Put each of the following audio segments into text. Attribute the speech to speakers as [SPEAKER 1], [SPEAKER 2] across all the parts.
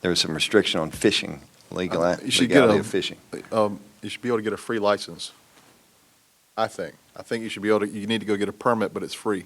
[SPEAKER 1] there was some restriction on fishing, legal,
[SPEAKER 2] Uh, you should get
[SPEAKER 1] legality
[SPEAKER 2] a-
[SPEAKER 1] of fishing.
[SPEAKER 2] Um, you should be able to get a free license, I think. I think you should be able to, you need to go get a permit, but it's free.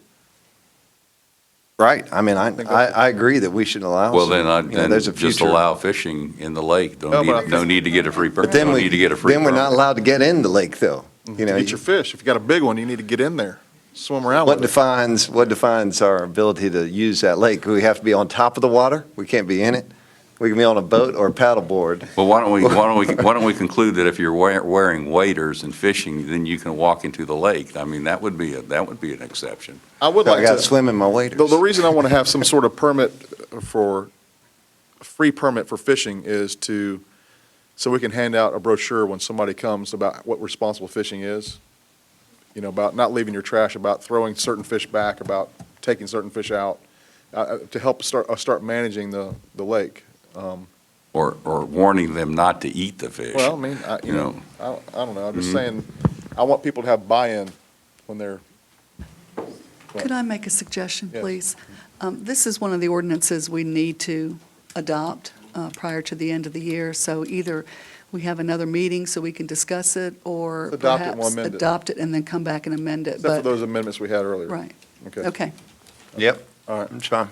[SPEAKER 1] Right, I mean, I,
[SPEAKER 2] think
[SPEAKER 1] I,
[SPEAKER 2] that's-
[SPEAKER 1] I agree that we should allow.
[SPEAKER 3] Well,
[SPEAKER 1] some-
[SPEAKER 3] then I,
[SPEAKER 1] you know,
[SPEAKER 3] then
[SPEAKER 1] there's a
[SPEAKER 3] just
[SPEAKER 1] future-
[SPEAKER 3] allow fishing in the lake.
[SPEAKER 2] No,
[SPEAKER 3] Don't
[SPEAKER 2] but
[SPEAKER 3] need, no need to get a free
[SPEAKER 1] But
[SPEAKER 3] permit.
[SPEAKER 1] then
[SPEAKER 3] Don't
[SPEAKER 1] we,
[SPEAKER 3] need to get a free
[SPEAKER 1] then we're not
[SPEAKER 3] permit.
[SPEAKER 1] allowed to get in the lake, though. You know,
[SPEAKER 2] Mm-hmm. Get your fish. If you got a big one, you need to get in there, swim around
[SPEAKER 1] what
[SPEAKER 2] with it.
[SPEAKER 1] defines, what defines our ability to use that lake? We have to be on top of the water, we can't be in it. We can be on a boat or a paddleboard.
[SPEAKER 3] Well, why don't we, why don't we, why don't we conclude that if you're wear- wearing waders and fishing, then you can walk into the lake? I mean, that would be, a that would be an exception.
[SPEAKER 2] I would
[SPEAKER 1] I
[SPEAKER 2] like
[SPEAKER 1] gotta
[SPEAKER 2] to,
[SPEAKER 1] swim in my
[SPEAKER 2] the,
[SPEAKER 1] waders.
[SPEAKER 2] the reason I want to have some sort of permit for, a free permit for fishing is to, so we can hand out a brochure when somebody comes about what responsible fishing is. You know, about not leaving your trash, about throwing certain fish back, about taking certain fish out, uh, uh, to help start, uh, start managing the, the lake. Um,
[SPEAKER 3] Or, or warning them not to eat the fish.
[SPEAKER 2] Well, I mean, I,
[SPEAKER 3] You know, Mm-hmm.
[SPEAKER 2] I, don't- I don't know, I'm just saying, I want people to have buy-in when they're,
[SPEAKER 4] Could I make a suggestion,
[SPEAKER 2] Yes.
[SPEAKER 4] please? Um, This is one of the ordinances we need to adopt uh, prior to the end of the year, so either we have another meeting so we can discuss it, or
[SPEAKER 2] Adopt it, we'll
[SPEAKER 4] perhaps
[SPEAKER 2] amend it.
[SPEAKER 4] adopt it and then come back and amend it.
[SPEAKER 2] except for
[SPEAKER 4] But
[SPEAKER 2] those amendments we had earlier.
[SPEAKER 4] Right,
[SPEAKER 2] Okay,
[SPEAKER 4] okay.
[SPEAKER 1] Yep,
[SPEAKER 2] all right,
[SPEAKER 1] it's fine.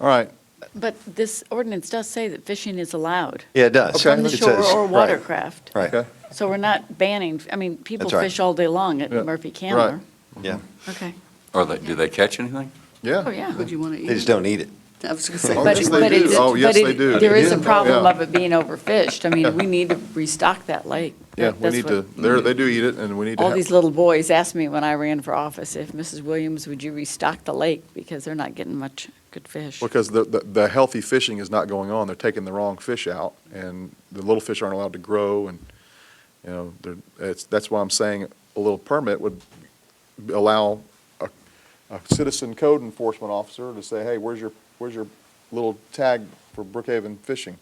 [SPEAKER 2] all right,
[SPEAKER 5] But this ordinance does say that fishing is allowed
[SPEAKER 1] Yeah, it does.
[SPEAKER 2] Okay.
[SPEAKER 5] on the
[SPEAKER 1] It
[SPEAKER 5] shore
[SPEAKER 1] says-
[SPEAKER 5] or
[SPEAKER 1] right,
[SPEAKER 5] watercraft.
[SPEAKER 1] Right,
[SPEAKER 2] okay,
[SPEAKER 5] So we're not banning, I mean, people
[SPEAKER 1] That's right.
[SPEAKER 5] fish all day long at
[SPEAKER 2] Yeah,
[SPEAKER 5] Murphy
[SPEAKER 2] right.
[SPEAKER 5] Candler.
[SPEAKER 1] yeah.
[SPEAKER 5] Okay,
[SPEAKER 3] are they, do they catch anything?
[SPEAKER 2] yeah.
[SPEAKER 5] oh, yeah.
[SPEAKER 4] Would you want to eat?
[SPEAKER 1] They just don't eat it.
[SPEAKER 4] I was going to say.
[SPEAKER 2] Oh,
[SPEAKER 5] But
[SPEAKER 2] yes,
[SPEAKER 5] it-
[SPEAKER 2] they
[SPEAKER 5] but it-
[SPEAKER 2] do. Oh,
[SPEAKER 5] but
[SPEAKER 2] yes,
[SPEAKER 5] it-
[SPEAKER 2] they do.
[SPEAKER 5] There is a
[SPEAKER 2] Yeah.
[SPEAKER 5] problem
[SPEAKER 2] Yeah.
[SPEAKER 5] of it being overfished. I mean, we need to restock that lake.
[SPEAKER 2] Yeah,
[SPEAKER 5] That-
[SPEAKER 2] we
[SPEAKER 5] that's
[SPEAKER 2] need
[SPEAKER 5] what-
[SPEAKER 2] to, they're, they do eat it, and we need to
[SPEAKER 5] All these
[SPEAKER 2] have,
[SPEAKER 5] little boys asked me when I ran for office, if Mrs. Williams, would you restock the lake? Because they're not getting much good fish.
[SPEAKER 2] because the, the, the healthy fishing is not going on, they're taking the wrong fish out, and the little fish aren't allowed to grow, and, you know, they're, it's, that's why I'm saying a little permit would allow a, a citizen code enforcement officer to say, hey, where's your, where's your little tag for Brookhaven fishing?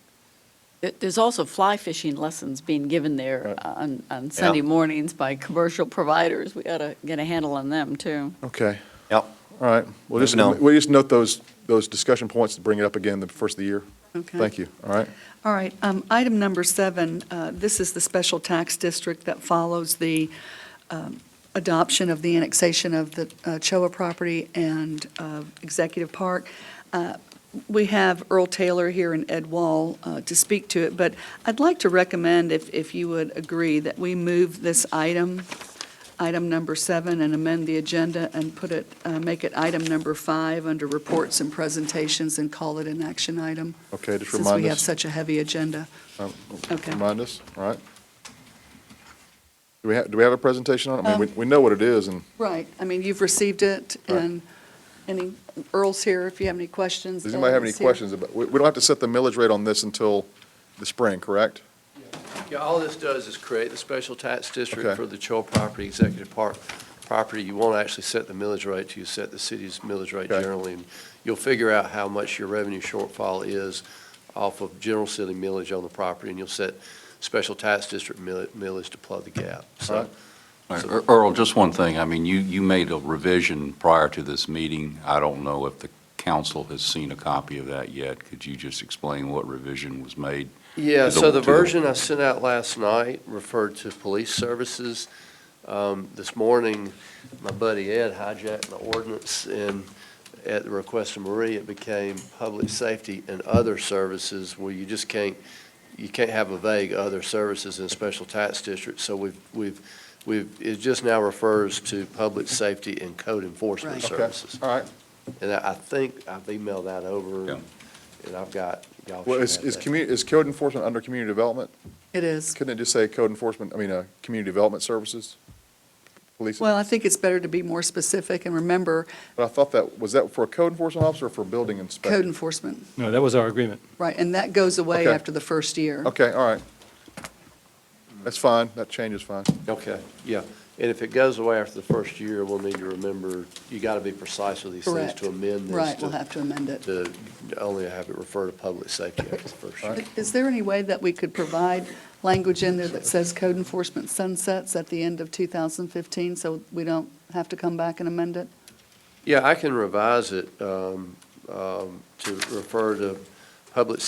[SPEAKER 5] There- There's also fly fishing lessons being given there
[SPEAKER 2] Right.
[SPEAKER 5] on, on Sunday mornings by commercial providers. We ought to get a handle on them, too.
[SPEAKER 2] Okay,
[SPEAKER 1] Yep.
[SPEAKER 2] all right. We'll just,
[SPEAKER 1] Moving on.
[SPEAKER 2] we'll just note those, those discussion points to bring it up again the first of the year.
[SPEAKER 4] Okay.
[SPEAKER 2] Thank you, all right?
[SPEAKER 4] All right, um, item number seven, uh, this is the special tax district that follows the um, adoption of the annexation of the uh, Choa property and uh, Executive Park. Uh, We have Earl Taylor here and Ed Wall uh, to speak to it, but I'd like to recommend, if, if you would agree, that we move this item, item number seven, and amend the agenda and put it, uh, make it item number five under reports and presentations and call it an action item
[SPEAKER 2] Okay, just
[SPEAKER 4] since we
[SPEAKER 2] remind
[SPEAKER 4] have
[SPEAKER 2] us.
[SPEAKER 4] such a heavy agenda.
[SPEAKER 2] um,
[SPEAKER 4] Okay.
[SPEAKER 2] Remind us, all right? Do we have, do we have a presentation on it? I
[SPEAKER 4] Uh,
[SPEAKER 2] mean, we, we know what it is, and
[SPEAKER 4] Right, I mean, you've received it,
[SPEAKER 2] Right.
[SPEAKER 4] and any, Earl's here if you have any questions. uh,
[SPEAKER 2] does anybody have any
[SPEAKER 4] Ed's here.
[SPEAKER 2] questions about, we, we don't have to set the millage rate on this until the spring, correct?
[SPEAKER 6] Yeah, all this does is create the special tax
[SPEAKER 2] Okay.
[SPEAKER 6] district for the Cho property, executive park property. You won't actually set the millage rate, you set the city's millage rate
[SPEAKER 2] Okay.
[SPEAKER 6] generally. and You'll figure out how much your revenue shortfall is off of general city millage on the property, and you'll set special tax district mill- millage to plug the gap.
[SPEAKER 2] All
[SPEAKER 6] So
[SPEAKER 2] right.
[SPEAKER 3] All right, Ear- Earl, just one thing. I mean, you, you made a revision prior to this meeting. I don't know if the council has seen a copy of that yet. Could you just explain what revision was made?
[SPEAKER 6] Yeah,
[SPEAKER 3] To the-
[SPEAKER 6] so the
[SPEAKER 3] to the-
[SPEAKER 6] version I sent out last night referred to police services. Um, This morning, my buddy Ed hijacked my ordinance, and at the request of Marie, it became public safety and other services, where you just can't, you can't have a vague other services in a special tax district. So we've, we've, we've, it just now refers to public safety and code enforcement
[SPEAKER 4] Right.
[SPEAKER 2] Okay,
[SPEAKER 6] services.
[SPEAKER 2] all right.
[SPEAKER 6] And I I think I've emailed that
[SPEAKER 3] Yeah.
[SPEAKER 6] over, and I've got, y'all
[SPEAKER 2] Well,
[SPEAKER 6] should
[SPEAKER 2] is,
[SPEAKER 6] have
[SPEAKER 2] is
[SPEAKER 6] that.
[SPEAKER 2] commu, is code enforcement under community development?
[SPEAKER 4] It is.
[SPEAKER 2] Couldn't it just say code enforcement, I mean, uh, community development services? Police,
[SPEAKER 4] Well, I think it's better to be more specific and remember
[SPEAKER 2] but I thought that, was that for a code enforcement officer or for building inspector?
[SPEAKER 4] code enforcement,
[SPEAKER 7] No, that was our agreement.
[SPEAKER 4] right, and that goes away
[SPEAKER 2] Okay.
[SPEAKER 4] after the first year.
[SPEAKER 2] Okay, all right. That's fine, that change is fine.
[SPEAKER 6] Okay, yeah. And if it goes away after the first year, we'll need to remember, you got to be precise with these things
[SPEAKER 4] Correct.
[SPEAKER 6] to amend this.
[SPEAKER 4] Right,
[SPEAKER 6] to-
[SPEAKER 4] we'll have to amend it.
[SPEAKER 6] To only have it refer to public safety after the first year.
[SPEAKER 4] Is there any way that we could provide language in there that says code enforcement sunsets at the end of 2015, so we don't have to come back and amend it?
[SPEAKER 6] Yeah, I can revise it um, um, to refer to public